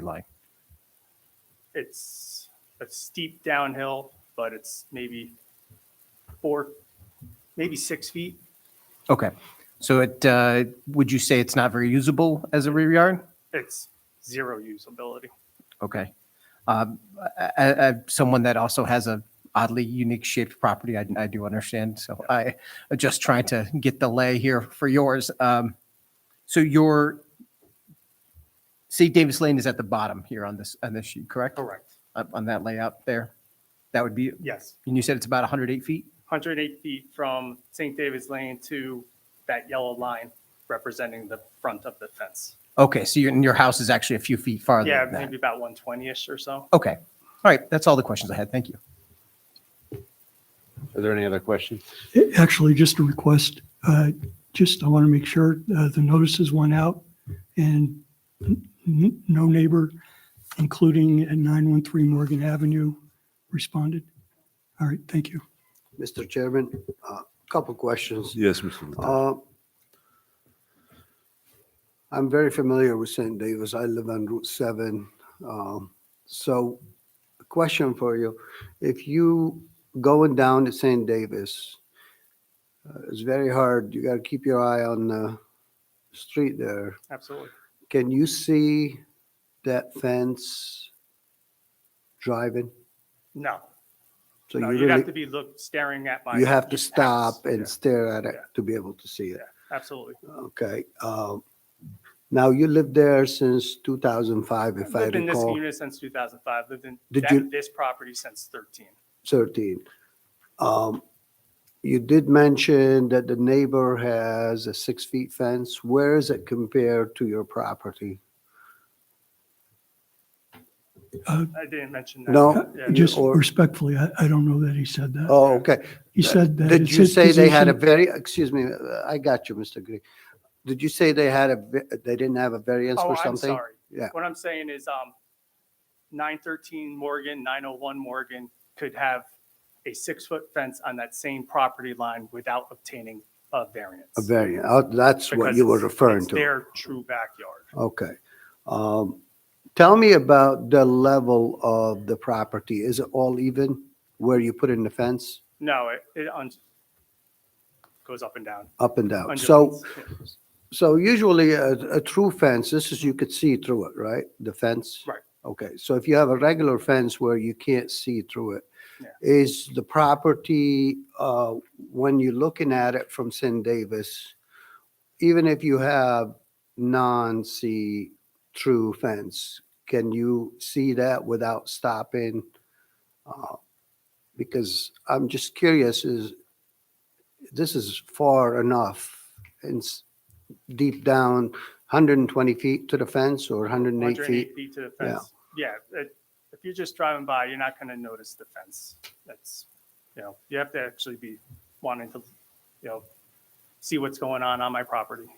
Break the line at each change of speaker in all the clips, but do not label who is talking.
line.
it's a steep downhill, but it's maybe four, maybe six feet.
Okay. So it, uh, would you say it's not very usable as a rear yard?
It's zero usability.
Okay. Um, I- I- I- Someone that also has a oddly unique shaped property, I I do understand. So I I'm just trying to get the lay here for yours. Um, So your, see Davis Lane is at the bottom here on this, on this sheet, correct?
Correct.
Up On that layout there? That would be,
Yes,
and you said it's about 108 feet?
108 feet from St. David's Lane to that yellow line representing the front of the fence.
Okay, so your, and your house is actually a few feet farther
Yeah,
than that?
maybe about 120-ish or so.
Okay. All right, that's all the questions I had. Thank you.
Are there any other questions?
Actually, just a request, uh, just, I want to make sure uh, the notices went out and n- n- no neighbor, including at 913 Morgan Avenue, responded. All right, thank you.
Mr. Chairman, a couple questions.
Yes, Mr. Vitale.
Uh, I'm very familiar with St. Davis. I live on Route 7. Um, So a question for you. If you going down to St. Davis, uh, it's very hard. You got to keep your eye on the street there.
Absolutely.
Can you see that fence driving?
No,
So
no,
you
you'd have to
really-
be look, staring at my.
You have to
house.
stop
Yeah,
and stare at it
Yeah.
to be able to see it.
Absolutely.
Okay. um, Now, you lived there since 2005, if I
Lived in this
recall,
unit since 2005, lived in
Did
that-
you-
this property since 13.
13. Um, You did mention that the neighbor has a six-feet fence. Where is it compared to your property?
I didn't mention that.
No?
Yeah.
you-
Just
or-
respectfully, I, I don't know that he said that.
Oh, okay.
He said that.
Did
it's
you
his
say they had a
position-
very, excuse me, uh, I got you, Mr. Green. Did you say they had a, ve- they didn't have a variance
Oh,
for
I'm
something?
sorry.
Yeah.
What I'm saying is, um, nine thirteen Morgan, nine oh one Morgan could have a six-foot fence on that same property line without obtaining a variance.
A variance. Oh, That's what
because
you were
it's-
referring
it's
to.
Their true backyard.
Okay. Um, Tell me about the level of the property. Is it all even where you put in the fence?
No, it, it un- goes up and down.
Up and down? So,
undulates.
so usually a, a true fence, this is, you could see through it, right? The fence?
Right.
Okay, so if you have a regular fence where you can't see through it,
Yeah.
is the property, uh, when you're looking at it from St. Davis, even if you have non-see-through fence, can you see that without stopping? Uh, Because I'm just curious, is, this is far enough and s- deep down, 120 feet to the fence or 108 feet?
108 feet to the
Yeah.
fence. Yeah, it- if you're just driving by, you're not going to notice the fence. That's, you know, you have to actually be wanting to, you know, see what's going on on my property.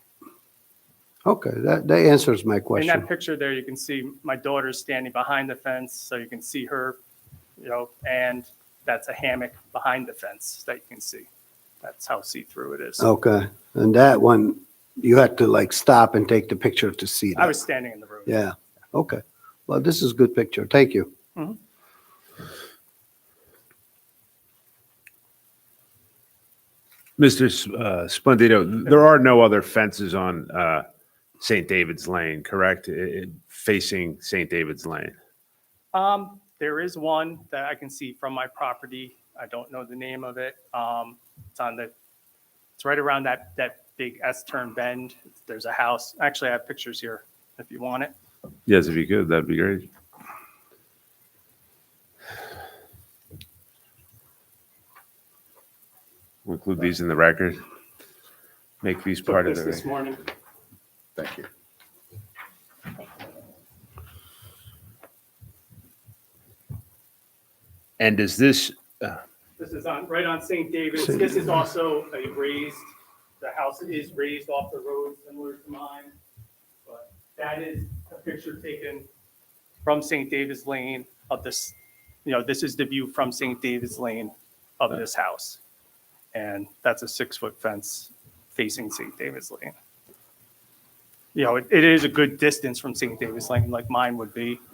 Okay, that, that answers my
In that
question.
picture there, you can see my daughter's standing behind the fence, so you can see her, you know, and that's a hammock behind the fence that you can see. That's how see-through it is.
Okay, and that one, you had to like stop and take the picture to see
I
that.
was standing in the road.
Yeah, okay. Well, this is a good picture. Thank you.
Mr. S- uh, Splendito, there are no other fences on uh, St. David's Lane, correct? I- I- Facing St. David's Lane.
Um, there is one that I can see from my property. I don't know the name of it. Um, it's on the, it's right around that, that big S-turn bend. There's a house. Actually, I have pictures here if you want it.
Yes, if you could, that'd be great. We'll Include these in the record. Make these part of the.
This This
record.
morning.
Thank you. And does this,
This is on, right on St. David's. This is also a raised, the house is raised off the road similar to mine. But that is a picture taken from St. David's Lane of this, you know, this is the view from St. David's Lane of this house. And that's a six-foot fence facing St. David's Lane. you know, it it is a good distance from St. David's Lane, like mine would be.